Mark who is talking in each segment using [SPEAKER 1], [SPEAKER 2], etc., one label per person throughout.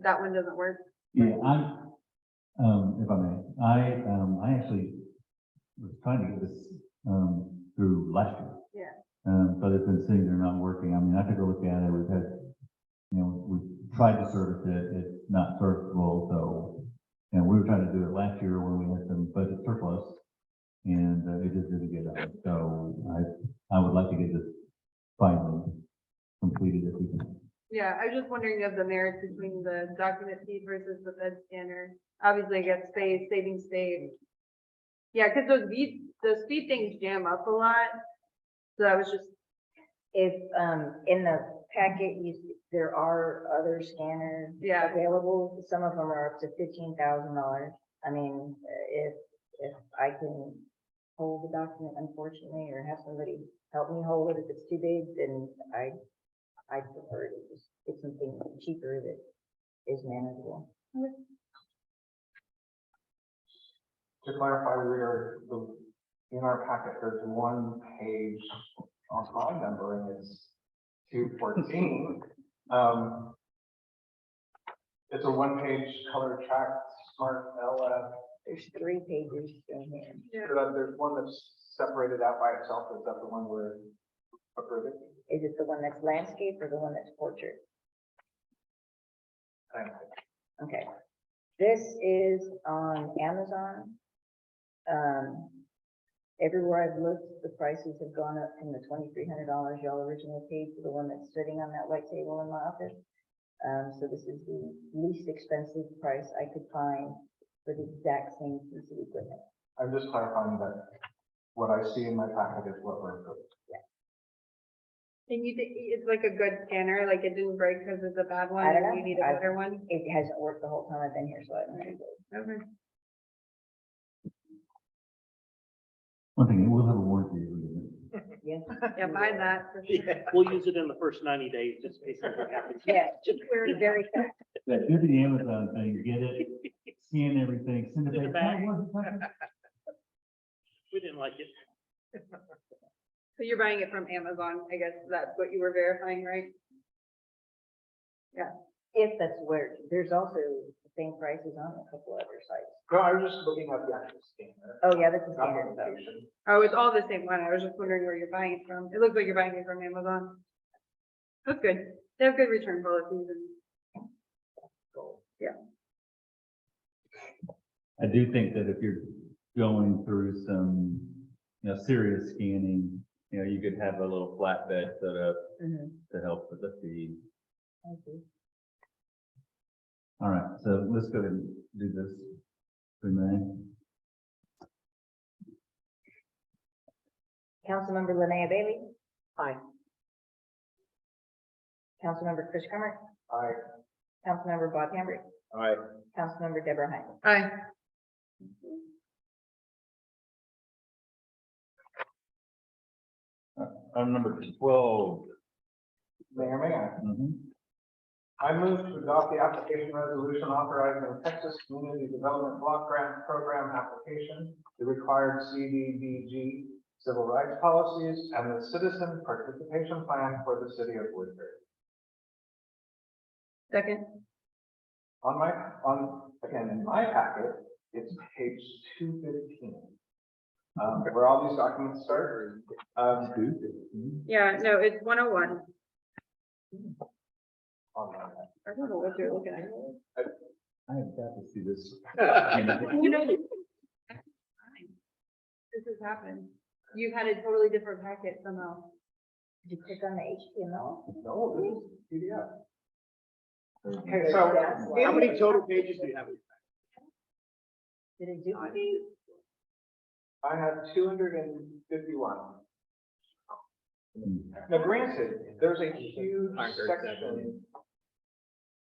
[SPEAKER 1] that one doesn't work.
[SPEAKER 2] Yeah, I, um, if I may, I, um, I actually was trying to get this, um, through last year.
[SPEAKER 1] Yeah.
[SPEAKER 2] Um, but it's been sitting there not working. I mean, I took a look at it, we've had, you know, we tried to service it, it's not serviceable, so. And we were trying to do it last year when we had some budget surplus, and uh, it just didn't get done. So I, I would like to get this finally completed if we can.
[SPEAKER 1] Yeah, I was just wondering of the merits between the document feed versus the Fed scanner. Obviously, I guess space, saving state. Yeah, because those feed, those feed things jam up a lot. So I was just,
[SPEAKER 3] If, um, in the packet, you, there are other scanners
[SPEAKER 1] Yeah.
[SPEAKER 3] available. Some of them are up to fifteen thousand dollars. I mean, if, if I can hold the document unfortunately, or have somebody help me hold it if it's too big, then I, I prefer to just get something cheaper that is manageable.
[SPEAKER 4] To clarify, we are, the- in our packet, there's one page on my number and it's two fourteen. Um, it's a one-page color track, smart LF.
[SPEAKER 3] There's three pages in here.
[SPEAKER 1] yeah,
[SPEAKER 4] but, uh, There's one that's separated out by itself. Is that the one we're approving?
[SPEAKER 3] Is it the one that's landscape or the one that's portrait?
[SPEAKER 4] Thank
[SPEAKER 3] Okay. This is on Amazon. Um, everywhere I've looked, the prices have gone up from the twenty-three hundred dollars y'all originally paid for the one that's sitting on that white table in my office. Um, so this is the least expensive price I could find for the exact same piece of equipment.
[SPEAKER 4] I'm just clarifying that what I see in my packet is what we're approving.
[SPEAKER 1] and you think it's like a good scanner, like it didn't break because it's a bad one,
[SPEAKER 3] I
[SPEAKER 1] and
[SPEAKER 3] don't know.
[SPEAKER 1] you need a
[SPEAKER 3] I-
[SPEAKER 1] better one?
[SPEAKER 3] It hasn't worked the whole time I've been here, so I don't know.
[SPEAKER 1] Okay.
[SPEAKER 2] One thing, we'll have a warranty agreement.
[SPEAKER 3] Yes.
[SPEAKER 1] Yeah, buy that for sure.
[SPEAKER 5] We'll use it in the first ninety days, just in case something happens.
[SPEAKER 3] Yeah,
[SPEAKER 1] Where-
[SPEAKER 3] be very careful.
[SPEAKER 2] That, do the Amazon thing, get it, scan everything, send
[SPEAKER 5] Send
[SPEAKER 2] it
[SPEAKER 5] it
[SPEAKER 2] back.
[SPEAKER 5] back.
[SPEAKER 2] "Oh, it wasn't that
[SPEAKER 5] We didn't like it.
[SPEAKER 1] So you're buying it from Amazon, I guess that's what you were verifying, right?
[SPEAKER 3] If that's where, there's also the same prices on a couple other sites.
[SPEAKER 4] No, I was just looking at the actual scanner.
[SPEAKER 3] Oh, yeah, that's a
[SPEAKER 4] not the
[SPEAKER 3] standard though.
[SPEAKER 4] location.
[SPEAKER 1] Oh, it's all the same one. I was just wondering where you're buying it from. It looks like you're buying it from Amazon. That's good. They have good return policies and
[SPEAKER 2] I do think that if you're going through some, you know, serious scanning, you know, you could have a little flatbed set up
[SPEAKER 3] Mhm.
[SPEAKER 2] to help with the feed.
[SPEAKER 3] Thank you.
[SPEAKER 2] All right, so let's go ahead and do this. if We may.
[SPEAKER 3] Councilmember Linnea Bailey. Aye. Councilmember Chris Crummer,
[SPEAKER 4] Aye.
[SPEAKER 3] Councilmember Bob Hambrick,
[SPEAKER 4] Aye.
[SPEAKER 3] Councilmember Deborah Hines.
[SPEAKER 1] I,
[SPEAKER 2] Item Uh, number twelve.
[SPEAKER 4] Mayor, may I?
[SPEAKER 2] Mhm.
[SPEAKER 4] I move to adopt the application resolution authorizing the Texas Community Development Block Grant Program application, the required CDBG civil rights policies, and the citizen participation plan for the city of Woodbury.
[SPEAKER 1] second,
[SPEAKER 4] On my, on, again, in my packet, it's page two fifteen. Um, where all these documents start, um,
[SPEAKER 1] yeah, no, it's one oh one.
[SPEAKER 4] on my-
[SPEAKER 1] I don't know what you're looking at.
[SPEAKER 2] I have got to see this.
[SPEAKER 1] You know, This has happened. You've had a totally different packet somehow.
[SPEAKER 3] Did you click on the HTML?
[SPEAKER 4] no, this is PDF.
[SPEAKER 3] So,
[SPEAKER 6] How many total pages do you have?
[SPEAKER 3] Did it do?
[SPEAKER 4] I have two hundred and fifty-one. Now granted, there's a huge section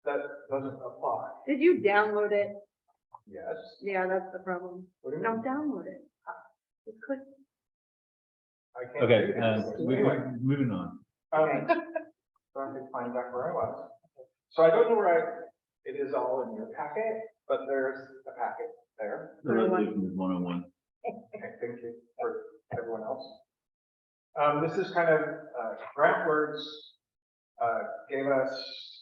[SPEAKER 4] that doesn't apply.
[SPEAKER 1] Did you download it?
[SPEAKER 4] Yes.
[SPEAKER 1] Yeah, that's the problem.
[SPEAKER 4] What do you
[SPEAKER 1] Don't
[SPEAKER 4] mean?
[SPEAKER 1] download it. Just click
[SPEAKER 4] I can't
[SPEAKER 2] Okay,
[SPEAKER 4] do
[SPEAKER 2] uh,
[SPEAKER 4] this.
[SPEAKER 2] we,
[SPEAKER 4] Anyway,
[SPEAKER 2] we're moving on.
[SPEAKER 4] um, So I can find back where I was. So I don't know where I, it is all in your packet, but there's a packet there.
[SPEAKER 2] The resolution is one oh one.
[SPEAKER 4] Okay, thank you for everyone else. Um, this is kind of, uh, Grant Words, uh, gave us